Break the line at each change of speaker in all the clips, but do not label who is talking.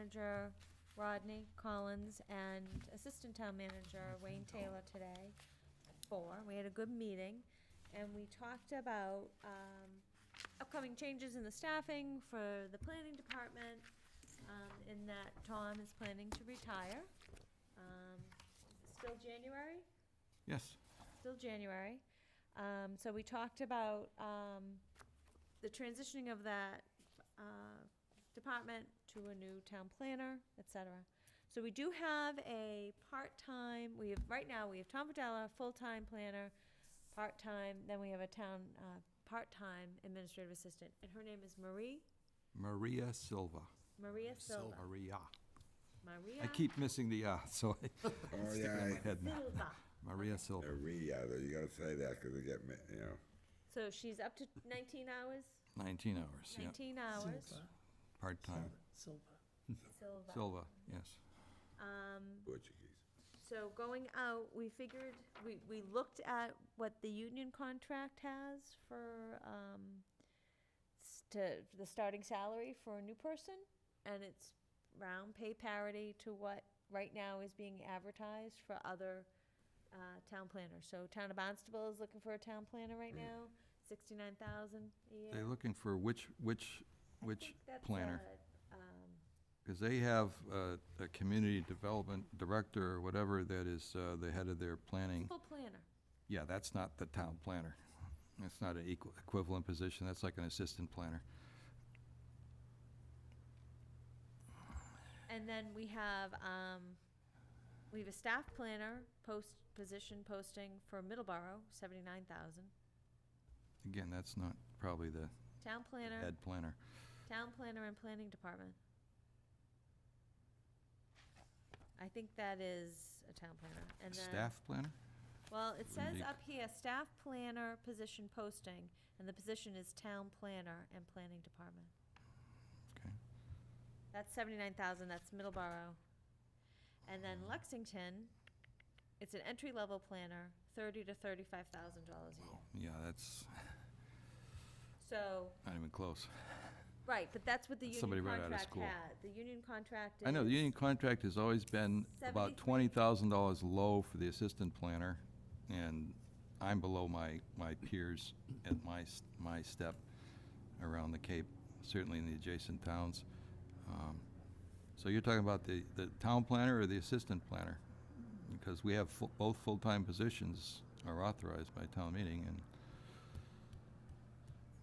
manager Rodney Collins and assistant town manager Wayne Taylor today. Four, we had a good meeting, and we talked about um, upcoming changes in the staffing for the planning department, um, in that Tom is planning to retire. Um, Still January?
Yes.
still January. Um, so we talked about, um, the transitioning of that, uh, department to a new town planner, et cetera. So we do have a part-time, we have, right now, we have Tom Padella, full-time planner, part-time, then we have a town, uh, part-time administrative assistant, and her name is Marie,
Maria Silva.
Maria Silva.
Maria.
Maria
I keep missing the R, so I
Oh,
stick it in my
yeah.
head now.
Silva.
Maria Silva.
Maria, though, you gotta say that because they get, ma- you know,
So she's up to nineteen hours,
19 hours, yeah.
nineteen hours,
Part-time.
Silva.
Silva. Um,
Silva, yes.
Portuguese.
So going out, we figured, we, we looked at what the union contract has for, um, s- to, the starting salary for a new person, and it's round pay parity to what right now is being advertised for other, uh, town planners. So Town of Barnstable is looking for a town planner right now, sixty-nine thousand a year.
They're looking for which, which,
I
which
think that's,
planner?
uh, Um,
Because they have uh, a community development director or whatever that is uh, the head of their planning.
full planner.
Yeah, that's not the town planner. That's not an equ- equivalent position, that's like an assistant planner.
And then we have, um, we have a staff planner post, position posting for Middleborough, seventy-nine thousand.
Again, that's not probably the
Town planner,
head planner.
town planner and planning department. I think that is a town planner, and then.
Staff planner?
Well, it says
Unique.
up here, staff planner position posting, and the position is town planner and planning department.
Okay.
That's seventy-nine thousand, that's Middleborough. And then
Mm-hmm.
Lexington, it's an entry-level planner, thirty to thirty-five thousand dollars a year.
Yeah, that's
So,
not even close.
right, but that's what the
Somebody
union
right out of
contract
school.
had. The union contract is.
I know, the union contract has always been about twenty thousand dollars low for the assistant planner, and I'm below my, my peers at my, s- my step around the Cape, certainly in the adjacent towns. Um, So you're talking about the, the town planner or the assistant planner? Because we have fu- both full-time positions are authorized by town meeting, and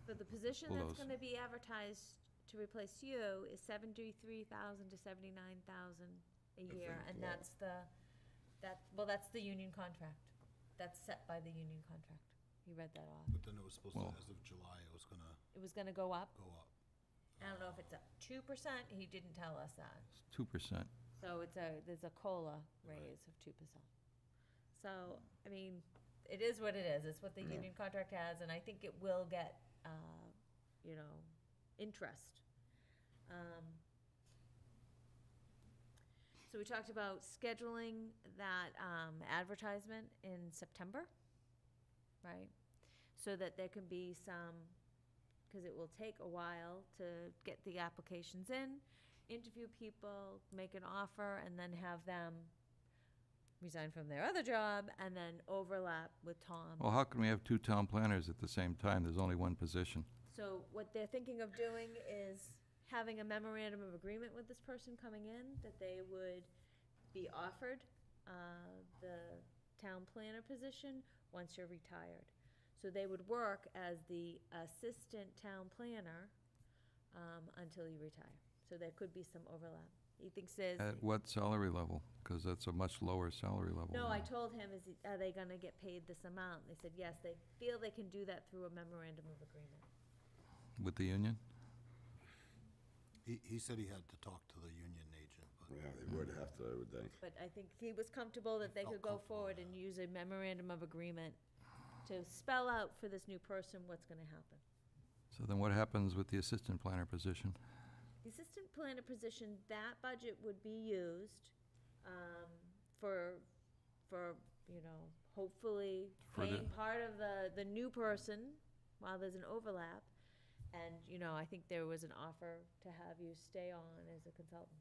So the position
All
that's
those.
gonna be advertised to replace you is seventy-three thousand to seventy-nine thousand a year, and that's the, that, well, that's the union contract. That's set by the union contract. You read that off.
But then it was supposed
Well-
to, as of July, it was gonna
It was gonna go up.
go up.
I don't know if it's a two percent, he didn't tell us that.
it's two percent.
So it's a, there's a COLA raise of two percent. So, I mean, it is what it is, it's what the union contract has, and I think it will get, uh, you know, interest. Um, So we talked about scheduling that um, advertisement in September, right? So that there can be some, because it will take a while to get the applications in, interview people, make an offer, and then have them resign from their other job, and then overlap with Tom.
Well, how can we have two town planners at the same time? There's only one position.
So what they're thinking of doing is having a memorandum of agreement with this person coming in, that they would be offered uh, the town planner position once you're retired. So they would work as the assistant town planner um, until you retire. So there could be some overlap. He thinks there's,
At what salary level? Because that's a much lower salary level.
no, I
than-
told him, is, he- are they gonna get paid this amount? They said, yes, they feel they can do that through a memorandum of agreement.
With the union?
He, he said he had to talk to the union agent, but
Yeah, they would have to, I would think.
But I think he was comfortable that they could go
Felt comfortable
forward and use a memorandum of agreement to spell out for this new person what's gonna happen.
So then what happens with the assistant planner position?
The assistant planner position, that budget would be used, um, for, for, you know, hopefully
For the-
paying part of the, the new person while there's an overlap. And, you know, I think there was an offer to have you stay on as a consultant.